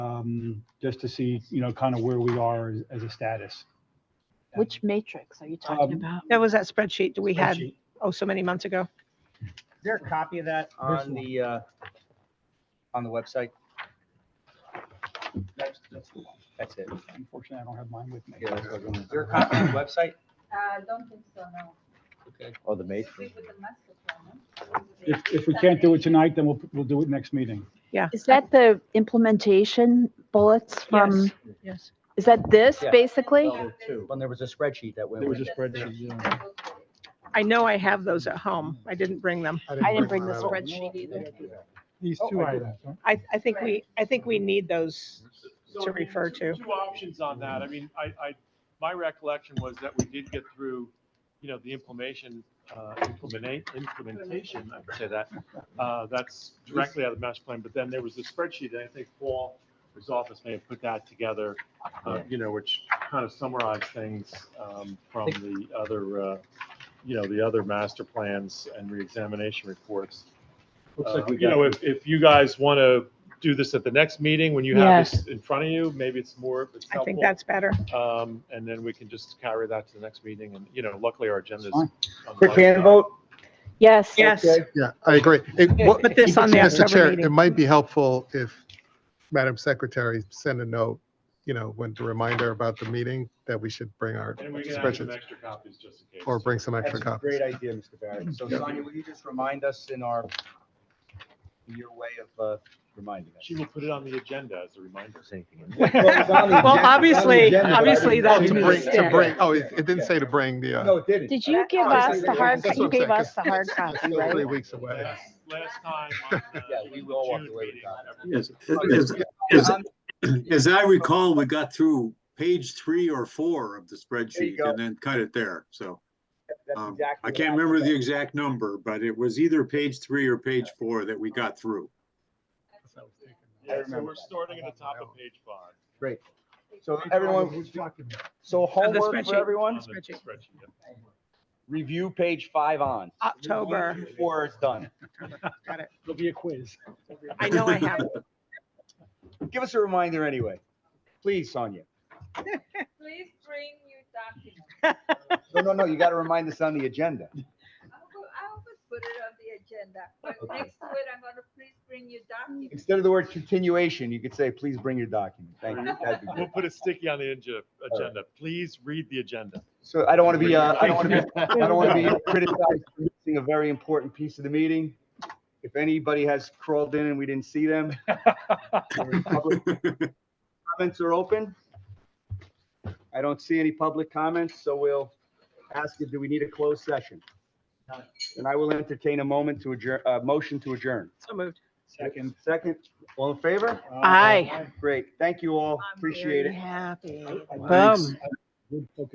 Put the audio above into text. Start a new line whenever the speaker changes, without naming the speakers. um, just to see, you know, kind of where we are as, as a status.
Which matrix are you talking
Um,
about?
That was that spreadsheet that we had,
Spreadsheet.
oh, so many months ago.
Is there a copy of that
There's
on
one.
the, uh, on the website?
That's, that's the one.
That's it.
Unfortunately, I don't have mine with me.
Yeah, that's what I was wondering. Is there a copy on the website?
I Uh, don't think so, no.
Okay.
Oh, the
This
matrix.
is with the master plan, no?
If, if we can't do it tonight, then we'll, we'll do it next meeting.
Is that the implementation bullets from,
Yes, yes.
is that this
Yeah.
basically?
Level two.
When Oh, there was a spreadsheet that went
There
with
was
it.
a spreadsheet. yeah.
I know I have those at home. I didn't bring them.
I didn't bring the spreadsheet either.
These
Oh,
two
I did.
items, huh?
I, I think we, I think we need those.
So,
to
I mean,
refer
two-
to.
Two options on that. I mean, I, I, my recollection was that we did get through, you know, the implementation, uh, implementate, implementation, I would say that. Uh, that's directly out of the master plan, but then there was the spreadsheet, and I think Paul, his office may have put that together, uh, you know, which kind of summarized things, um, from the other, uh, you know, the other master plans and reexamination reports.
Looks
Uh,
like we
You
got-
know, if, if you guys want to do this at the next meeting, when you have this in front of you, maybe it's more, it's
I think
helpful.
that's better.
Um, and then we can just carry that to the next meeting and, you know, luckily our agenda's.
Fine.
on the
Quick
light
hand
side.
vote?
Yes.
Yes,
Okay.
Yeah, I agree. It- what-
Put this on the
Mr.
October
Chair,
meeting.
It might be helpful if Madam Secretary sent a note, you know, when to remind her about the meeting that we should bring our
And we can add some
spreadsheets
extra copies just in case.
or bring some
That's
extra
a
copies.
great idea, Mr. Barrett. So Sonia, will you just remind us in our, in your way of, uh, reminding us?
She will put it on the agenda as a reminder.
There's anything in there.
Well,
Well, obviously- obviously
Oh,
that-
to bring, to
Yeah.
bring, oh, it it didn't say to bring the,
No,
uh,
it didn't.
Did you give
That's-
us the hard,
that's
you
what I'm
gave
saying,
us the hard copy,
still three
right?
weeks away.
Last last time on uh, the
Yeah, we will walk
June
away with
meeting,
that.
everyone-
Yes, as, as, as I recall, we got through page three or four of the spreadsheet
go.
and then cut it there, so.
That's
um,
exactly
I
what
can't remember the
did.
exact number, but it was either page three or page four that we got through.
I
Yeah, so
remember
we're
that.
starting at the top of page five.
Great. So everyone, so
the
homework for
spreadsheet.
on
everyone,
the
Spreadsheet.
spreadsheet, yeah.
review page five on.
October.
Before it's done.
It'll be a quiz.
I know I have.
Give us a reminder anyway. Please, Sonia.
Please bring your documents.
No, no, no, you gotta remind us on the agenda.
I'll go, I'll go put it on the agenda, but next to it, I'm gonna please bring your documents.
Instead of the word continuation, you could say, please bring your document. Thank you. That'd be
We'll
good.
put a sticky on the ag- agenda. Please read the agenda.
So I don't wanna be, uh, I don't wanna be, I don't wanna be criticized for missing a very important piece of the meeting. If anybody has crawled in and we didn't see them. public Comments are open. I don't see any public comments, so we'll ask you, do we need a closed session? And I will entertain a moment to adjourn, uh, motion to adjourn.
So moved.
Second.
Second, all in favor?
Aye.
Great, thank you all,
I'm
appreciate it.
Happy.
I- I-
Boom.
I-